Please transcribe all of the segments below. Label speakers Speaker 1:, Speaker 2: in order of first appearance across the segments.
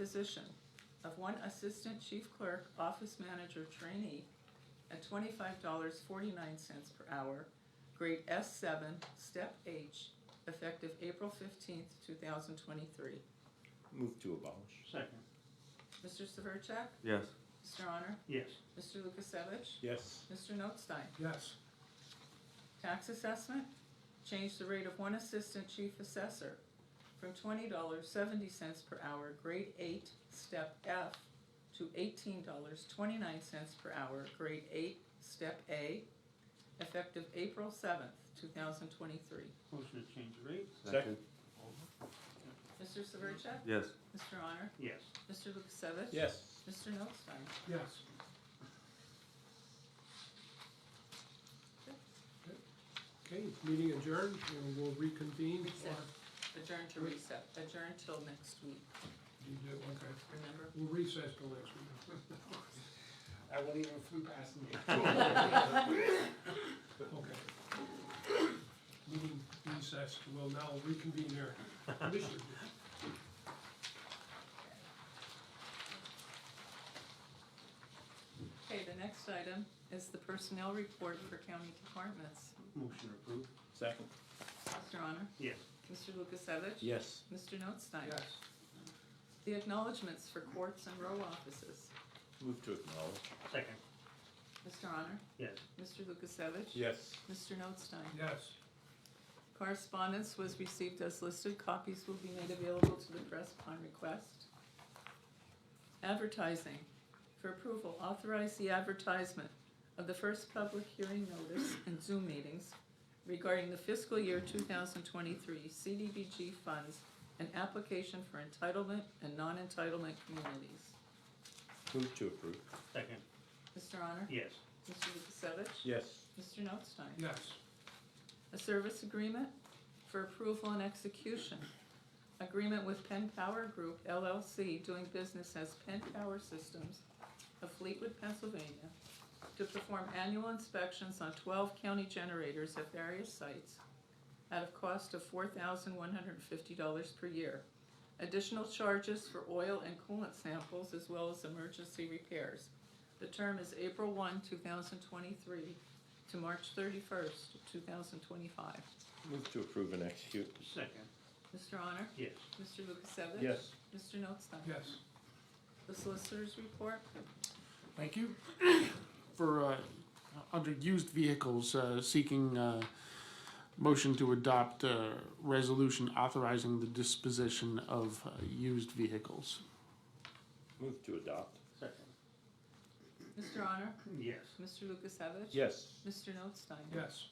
Speaker 1: position of one assistant chief clerk, office manager trainee at twenty-five dollars forty-nine cents per hour, grade S seven, step H, effective April fifteenth, two thousand twenty-three.
Speaker 2: Move to abolish.
Speaker 3: Second.
Speaker 1: Mr. Severcek?
Speaker 4: yes,
Speaker 1: Mr. Honor?
Speaker 3: Yes.
Speaker 1: Mr. Lukasevich?
Speaker 2: Yes.
Speaker 1: Mr. Notstein?
Speaker 5: yes,
Speaker 1: Tax assessment, change the rate of one assistant chief assessor from twenty dollars seventy cents per hour, grade eight, step F, to eighteen dollars twenty-nine cents per hour, grade eight, step A, effective April seventh, two thousand twenty-three.
Speaker 3: Motion to change the rate?
Speaker 2: Second.
Speaker 1: Mr. Severcek?
Speaker 4: yes,
Speaker 1: Mr. Honor?
Speaker 3: Yes.
Speaker 1: Mr. Lukasevich?
Speaker 2: Yes.
Speaker 1: Mr. Notstein?
Speaker 5: yes. Okay, meeting adjourned, and we'll reconvene.
Speaker 1: Reset. Adjourn to
Speaker 5: Re-
Speaker 1: reset, adjourn till next week,
Speaker 5: You do, okay.
Speaker 1: remember?
Speaker 5: We'll recess till next week.
Speaker 6: I won't even flew past me.
Speaker 5: Okay. Meeting recessed, we'll now reconvene here. Commissioner,
Speaker 1: Okay, the next item is the personnel report for county departments.
Speaker 3: Motion approved?
Speaker 2: Second.
Speaker 1: Mr. Honor?
Speaker 3: Yes.
Speaker 1: Mr. Lukasevich?
Speaker 2: Yes.
Speaker 1: Mr. Notstein?
Speaker 5: yes,
Speaker 1: The acknowledgements for courts and row offices.
Speaker 2: Move to acknowledge.
Speaker 3: Second.
Speaker 1: Mr. Honor?
Speaker 3: Yes.
Speaker 1: Mr. Lukasevich?
Speaker 2: Yes.
Speaker 1: Mr. Notstein?
Speaker 5: yes.
Speaker 1: Correspondence was received as listed. Copies will be made available to the press upon request. Advertising. For approval, authorize the advertisement of the first public hearing notice and Zoom meetings regarding the fiscal year two thousand twenty-three CDBG funds and application for entitlement and non-entitlement communities.
Speaker 2: Move to approve.
Speaker 3: Second.
Speaker 1: Mr. Honor?
Speaker 3: Yes.
Speaker 1: Mr. Lukasevich?
Speaker 2: Yes.
Speaker 1: Mr. Notstein?
Speaker 5: Yes,
Speaker 1: A service agreement for approval and execution. Agreement with Penn Power Group LLC doing business as Penn Power Systems of Fleetwood, Pennsylvania, to perform annual inspections on twelve county generators at various sites at a cost of four thousand one hundred and fifty dollars per year. Additional charges for oil and coolant samples as well as emergency repairs. The term is April one, two thousand twenty-three to March thirty-first, two thousand twenty-five.
Speaker 2: Move to approve and execute.
Speaker 3: Second.
Speaker 1: Mr. Honor?
Speaker 3: Yes.
Speaker 1: Mr. Lukasevich?
Speaker 2: Yes.
Speaker 1: Mr. Notstein?
Speaker 5: yes.
Speaker 1: The Solicitor's report?
Speaker 6: Thank you. For, uh, under used vehicles, uh, seeking, uh, motion to adopt, uh, resolution authorizing the disposition of uh, used vehicles.
Speaker 2: Move to adopt.
Speaker 3: Second.
Speaker 1: Mr. Honor?
Speaker 3: Yes.
Speaker 1: Mr. Lukasevich?
Speaker 2: Yes.
Speaker 1: Mr. Notstein?
Speaker 5: Yes,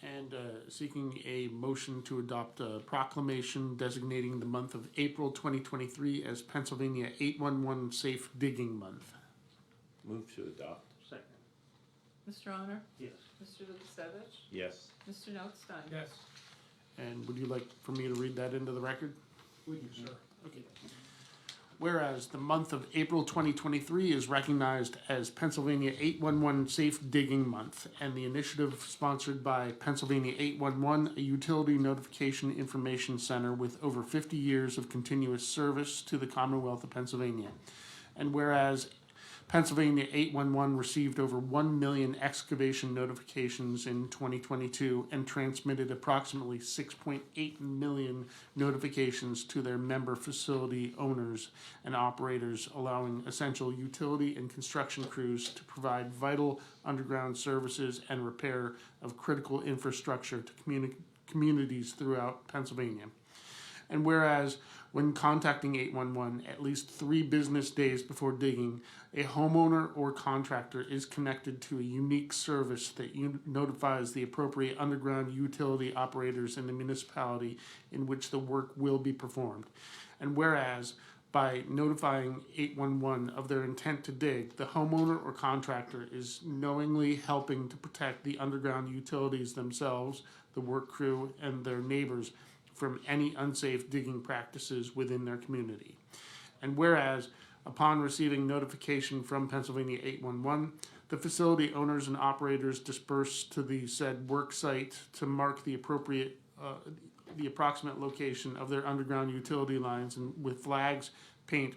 Speaker 6: And, uh, seeking a motion to adopt a proclamation designating the month of April twenty twenty-three as Pennsylvania eight-one-one Safe Digging Month.
Speaker 2: Move to adopt.
Speaker 3: Second.
Speaker 1: Mr. Honor?
Speaker 3: Yes.
Speaker 1: Mr. Lukasevich?
Speaker 2: Yes.
Speaker 1: Mr. Notstein?
Speaker 5: yes.
Speaker 6: And would you like for me to read that into the record?
Speaker 5: Would you, sir?
Speaker 6: Okay. Whereas the month of April 2023 is recognized as Pennsylvania 811 Safe Digging Month, and the initiative sponsored by Pennsylvania 811, a utility notification information center with over 50 years of continuous service to the Commonwealth of Pennsylvania. And whereas Pennsylvania 811 received over 1 million excavation notifications in 2022 and transmitted approximately 6.8 million notifications to their member facility owners and operators, allowing essential utility and construction crews to provide vital underground services and repair of critical infrastructure to communi- communities throughout Pennsylvania. And whereas when contacting 811 at least three business days before digging, a homeowner or contractor is connected to a unique service that un- notifies the appropriate underground utility operators in the municipality in which the work will be performed. And whereas by notifying 811 of their intent to dig, the homeowner or contractor is knowingly helping to protect the underground utilities themselves, the work crew, and their neighbors from any unsafe digging practices within their community. And whereas, upon receiving notification from Pennsylvania 811, the facility owners and operators disperse to the said work site to mark the appropriate, uh, the approximate location of their underground utility lines and with flags, paint